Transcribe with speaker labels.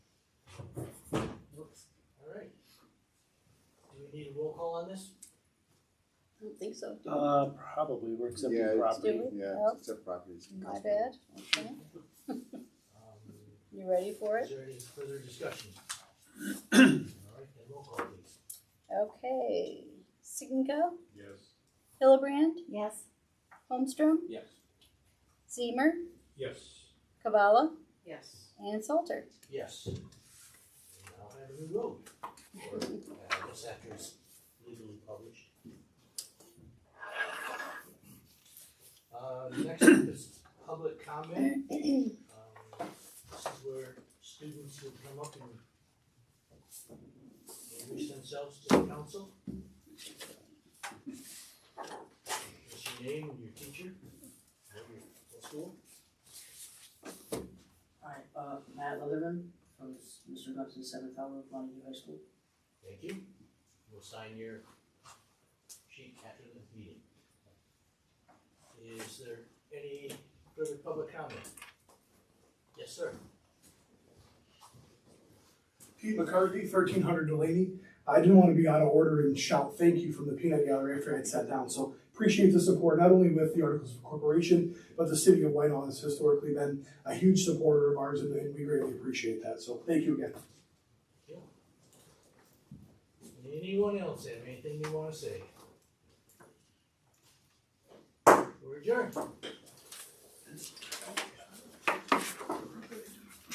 Speaker 1: we need a roll call on this?
Speaker 2: I don't think so. do we?
Speaker 3: Uh, probably, we're
Speaker 4: Yeah,
Speaker 3: accepting
Speaker 4: it's-
Speaker 3: property.
Speaker 2: Do we?
Speaker 4: Yeah,
Speaker 2: Oh.
Speaker 4: except properties.
Speaker 2: My bad, okay.
Speaker 1: Um,
Speaker 2: You ready for
Speaker 1: Is
Speaker 2: it?
Speaker 1: there any further discussion? Alright, then roll call please.
Speaker 2: Okay. Siginko,
Speaker 5: Yes.
Speaker 2: Hillebrand,
Speaker 6: Yes.
Speaker 2: Holmstrom,
Speaker 5: Yes.
Speaker 2: Zemer,
Speaker 5: Yes.
Speaker 2: Kavala,
Speaker 6: Yes.
Speaker 2: and Salter.
Speaker 1: Yes. And Now have a new road, or uh, I guess after it's legally published. Uh, next up is public comment. Um, This is where students will come up and introduce themselves to the council. What's your name and your teacher, what your, what school?
Speaker 7: Alright, uh, Matt Leatherman from s- Mr. Gumpton's seventh hour of Montague High School.
Speaker 1: Thank you. We'll sign your sheet after the meeting. Is there any further public comment? Yes, sir.
Speaker 8: Pete McCarthy, thirteen hundred Delaney. I didn't want to be out of order and shout thank you from the peanut gallery after I had sat down, so appreciate the support, not only with the Articles of Corporation, but the city of Whitehall has historically been a huge supporter of ours, and- and we greatly appreciate that, so thank you again.
Speaker 1: Anyone else have anything they wanna say? We're adjourned.